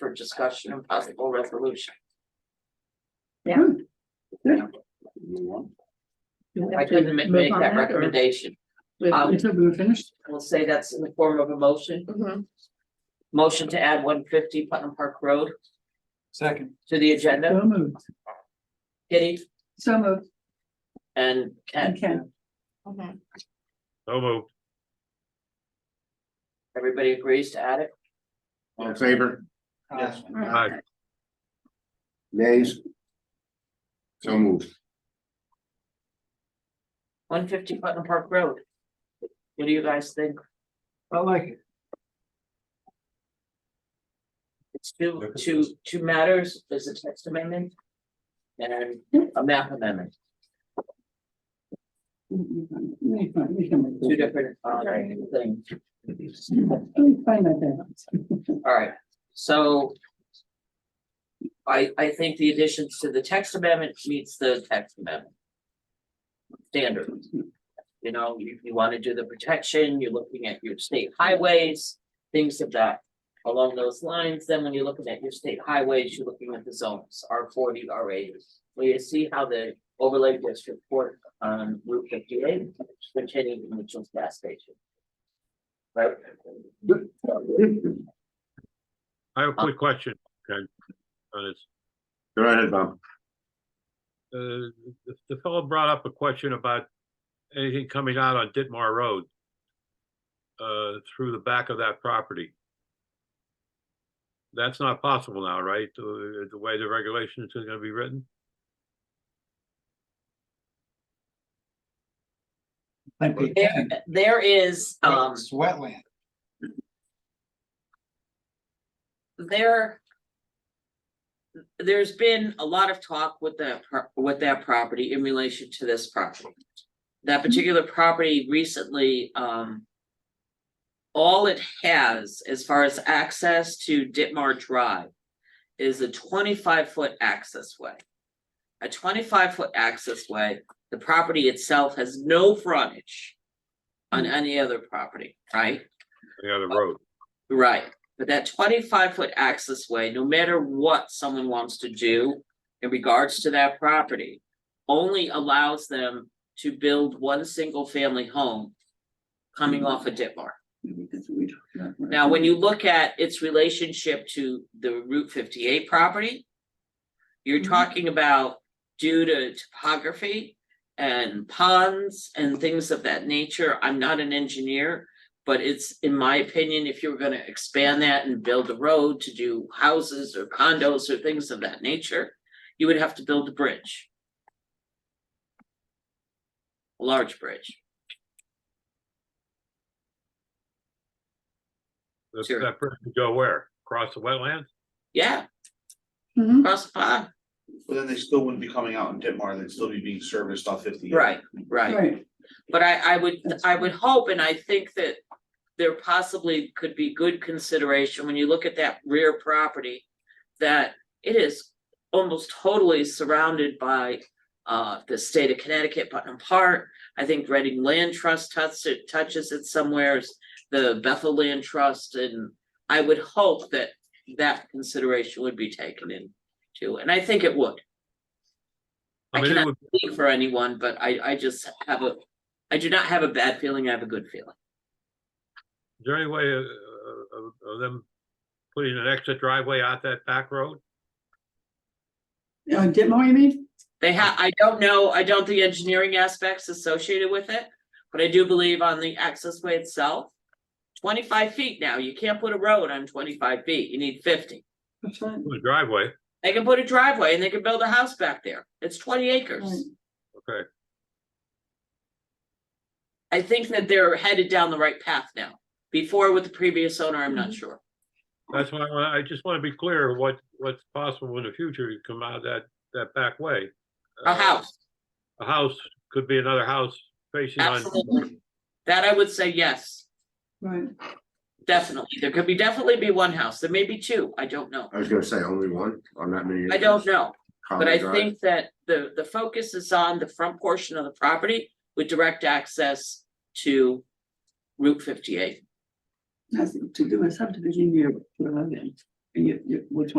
for discussion and possible resolution. I couldn't ma- make that recommendation. Um, Until we were finished, We'll say that's in the form of a motion. Motion to add one fifty Putnam Park Road Second. to the agenda. so moved, Kitty so moved, and Ken, and Ken, So moved. everybody agrees to add it? All in favor? Yes. Aye. Nays? So moved. One fifty Putnam Park Road. What do you guys think? I like it. It's two, two, two matters, there's a text amendment. And a map amendment, we can, we can two make that. different, uh, things, Let me find that balance. alright, so. I, I think the additions to the text amendment meets the text amendment. Standard. You know, you, you wanna do the protection, you're looking at your state highways, things of that. Along those lines, then when you're looking at your state highways, you're looking at the zones, R forty, R eighty. Well, you see how the overlay district work on Route fifty eight, containing the Mitchell's gas station. Right? I Oh. have a quick question, Ken. On this, Go ahead, Bob. uh, the- the fellow brought up a question about anything coming out on Ditmar Road. Uh, through the back of that property. That's not possible now, right? The, the way the regulations are gonna be written? Like they There, can, there is, but um, It's wetland. there. There's been a lot of talk with that, pro- with that property in relation to this property. That particular property recently, um. All it has as far as access to Ditmar Drive is a twenty-five foot access way. A twenty-five foot access way, the property itself has no frontage on any other property, right? The Oh, other road. Right, but that twenty-five foot access way, no matter what someone wants to do in regards to that property. Only allows them to build one single family home. Coming off a Ditmar. Maybe that's what we talked about. Now, when you look at its relationship to the Route fifty-eight property. You're Mhm. talking about due to topography and ponds and things of that nature. I'm not an engineer. But it's, in my opinion, if you were gonna expand that and build a road to do houses or condos or things of that nature, you would have to build a bridge. A large bridge. That, Sure. that bridge would go where? Across the wetlands? Yeah, Mhm. across the pond. But then they still wouldn't be coming out in Ditmar, they'd still be being serviced off fifty. Right, right. Right, But I, I would, That's I would hope, and I think that there possibly could be good consideration when you look at that rear property. That it is almost totally surrounded by, uh, the state of Connecticut, Putnam Park. I think Reading Land Trust touches it, touches it somewheres, the Bethel Land Trust, and I would hope that that consideration would be taken in too, and I think it would I I mean, it cannot- would, speak for anyone, but I, I just have a, I do not have a bad feeling, I have a good feeling. is there any way of, of, of them putting an exit driveway out that back road? uh, Ditmar, you mean? They ha, I don't know, I don't the engineering aspects associated with it, but I do believe on the access way itself. Twenty-five feet now, you can't put a road on twenty-five feet, you need fifty. That's right. The driveway, They can put a driveway and they can build a house back there, it's twenty acres. Right. okay. I think that they're headed down the right path now, before with the previous owner, I'm not Mhm. sure. That's why I wanna- I just want to be clear what, what's possible in the future to come out that, that back way. A Uh, house, A house, could be another house facing on, absolutely, that I would say yes. Right, Definitely, there could be definitely be one house, there may be two, I don't know, I was gonna say only one, on that many. I don't know, Common but I drive. think that the, the focus is on the front portion of the property with direct access to Route fifty-eight. nothing to do a subdivision, you put a road in. And you, you, which one